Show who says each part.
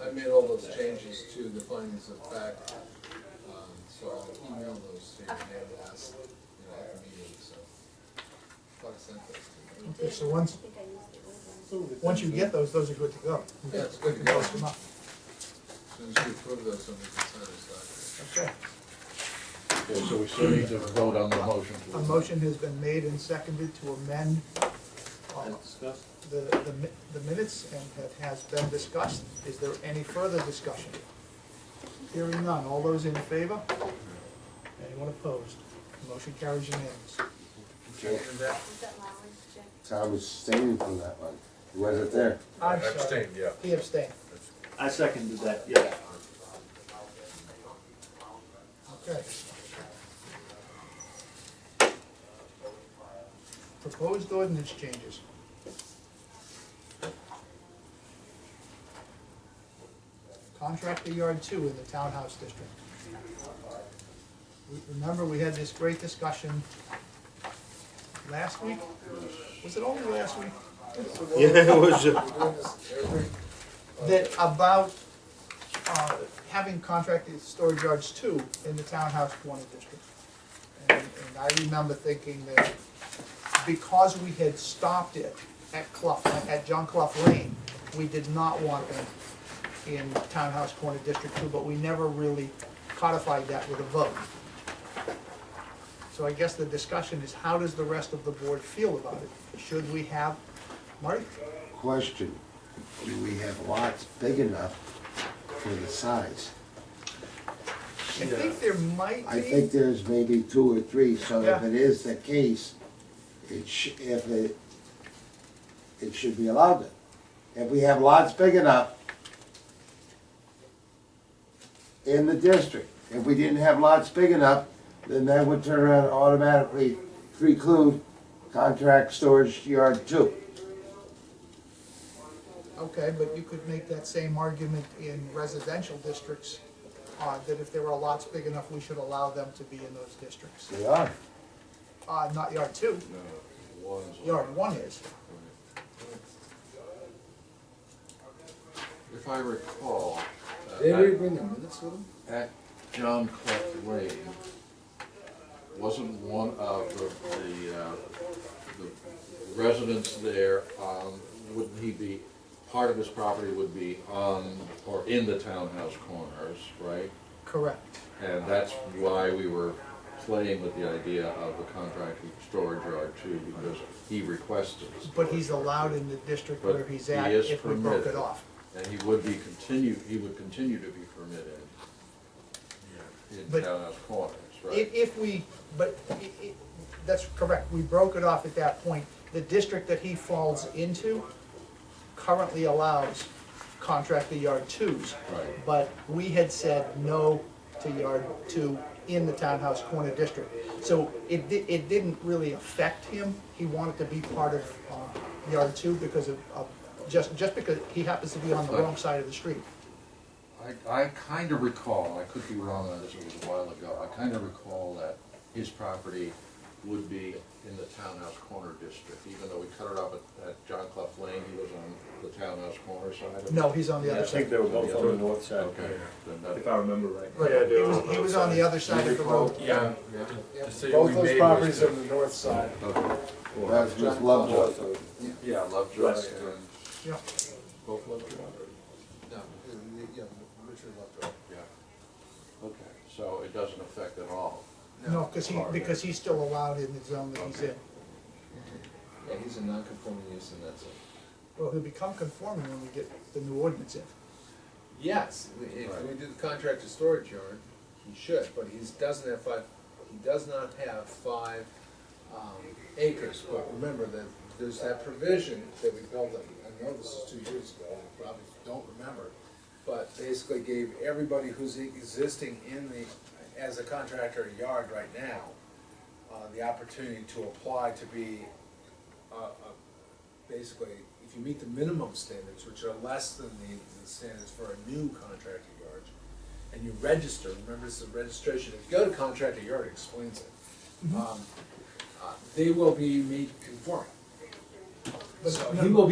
Speaker 1: I made all those changes to the findings of fact, um, so I'll email those to you and they'll ask, you know, at the meeting, so. Fuck sent those to me.
Speaker 2: Okay, so once,
Speaker 3: I think I used it with
Speaker 2: once you get those, those are good to go.
Speaker 1: Yeah, it's good to go.
Speaker 2: Post them up.
Speaker 1: As soon as you approve those, then we can sign those
Speaker 2: Okay,
Speaker 4: Okay, so we still need to vote on the motion. to-
Speaker 2: a motion has been made and seconded to amend uh, the, the mi- the minutes and have- has been discussed. Is there any further discussion? Hearing none, all those in favor? Anyone opposed? Motion carries unanimous.
Speaker 3: it. Is that Lowry, Jack?
Speaker 5: I was staying from that one. He wasn't there.
Speaker 2: I'm sorry,
Speaker 6: yeah.
Speaker 2: he abstained.
Speaker 7: I seconded that, yeah.
Speaker 2: Okay. Proposed ordinance changes. Contractor yard two in the townhouse district. We- Remember, we had this great discussion last week? Was it only last week?
Speaker 7: Yeah, it was, uh,
Speaker 1: We're doing this every
Speaker 2: that about, uh, having contracted storage yards too in the townhouse corner district. And, and I remember thinking that because we had stopped it at Clough, at John Clough Lane, we did not want them in townhouse corner district two, but we never really codified that with a vote. So I guess the discussion is how does the rest of the board feel about it? Should we have, Marty?
Speaker 5: Question, do we have lots big enough for the size?
Speaker 2: I think there might be.
Speaker 5: I think there's maybe two or three, so if
Speaker 2: Yeah.
Speaker 5: it is the case, it sh if it, it should be allowed it. If we have lots big enough in the district, if we didn't have lots big enough, then that would turn around and automatically preclude contract storage yard two.
Speaker 2: Okay, but you could make that same argument in residential districts, uh, that if there were lots big enough, we should allow them to be in those districts.
Speaker 5: They are.
Speaker 2: Uh, not yard two,
Speaker 1: ones.
Speaker 2: yard one is.
Speaker 1: If I recall. uh,
Speaker 4: Did we
Speaker 1: bring the minutes with them?
Speaker 4: At John Clough Lane, wasn't one of the, the, uh, the residents there, um, wouldn't he be, part of his property would be on, or in the townhouse corners, right?
Speaker 2: Correct.
Speaker 4: And that's why we were playing with the idea of the contract storage yard too, because he requested.
Speaker 2: But he's allowed in the district where
Speaker 4: But
Speaker 2: he's
Speaker 4: he
Speaker 2: at
Speaker 4: is
Speaker 2: if we broke it
Speaker 4: permitted.
Speaker 2: off.
Speaker 4: And he would be continue, he would continue to be permitted in
Speaker 2: But-
Speaker 4: townhouse corners, right?
Speaker 2: If, if we, but, i- i- that's correct, we broke it off at that point. The district that he falls into currently allows contractor yard twos.
Speaker 4: Right.
Speaker 2: But we had said no to yard two in the townhouse corner district. So it di- it didn't really affect him, he wanted to be part of, uh, yard two because of, of, just, just because he happens to be on the wrong side of the street.
Speaker 4: I, I kind of recall, I could be wrong on this, it was a while ago, I kind of recall that his property would be in the townhouse corner district, even though we cut it off at, at John Clough Lane, he was on the townhouse corner side of it.
Speaker 2: No, he's on the
Speaker 4: Yeah,
Speaker 2: other
Speaker 4: I
Speaker 6: I think
Speaker 2: side.
Speaker 6: they were both on the north side,
Speaker 4: Okay, then that-
Speaker 6: if I remember right.
Speaker 2: Right,
Speaker 8: Yeah, I
Speaker 2: he
Speaker 8: do.
Speaker 2: was, he was on the other side of the road.
Speaker 6: Yeah.
Speaker 8: Both those properties on the north side.
Speaker 4: okay.
Speaker 5: That's just Lovejoy.
Speaker 4: Yeah, Lovejoy
Speaker 6: Right.
Speaker 4: and
Speaker 2: Yeah.
Speaker 4: both Lovejoy,
Speaker 1: No, it- yeah, Richard left off.
Speaker 4: yeah. Okay, so it doesn't affect at all.
Speaker 2: No, because he, because he's still allowed in the zone that he's in.
Speaker 1: Yeah, he's a non-conforming use and that's it.
Speaker 2: Well, he'll become conforming when we get the new ordinance in.
Speaker 1: Yes, if we do the contracted storage yard, he should, but he's doesn't have five, he does not have five um, acres. But remember that there's that provision that we built, in- I know this is two years ago, I probably don't remember, but basically gave everybody who's existing in the, as a contractor yard right now, uh, the opportunity to apply to be uh, uh, basically, if you meet the minimum standards, which are less than the, the standards for a new contractor yard, and you register, remember this is a registration, if you go to contractor yard, it explains Mm-hmm. it. Um, uh, They will be made conforming. So he will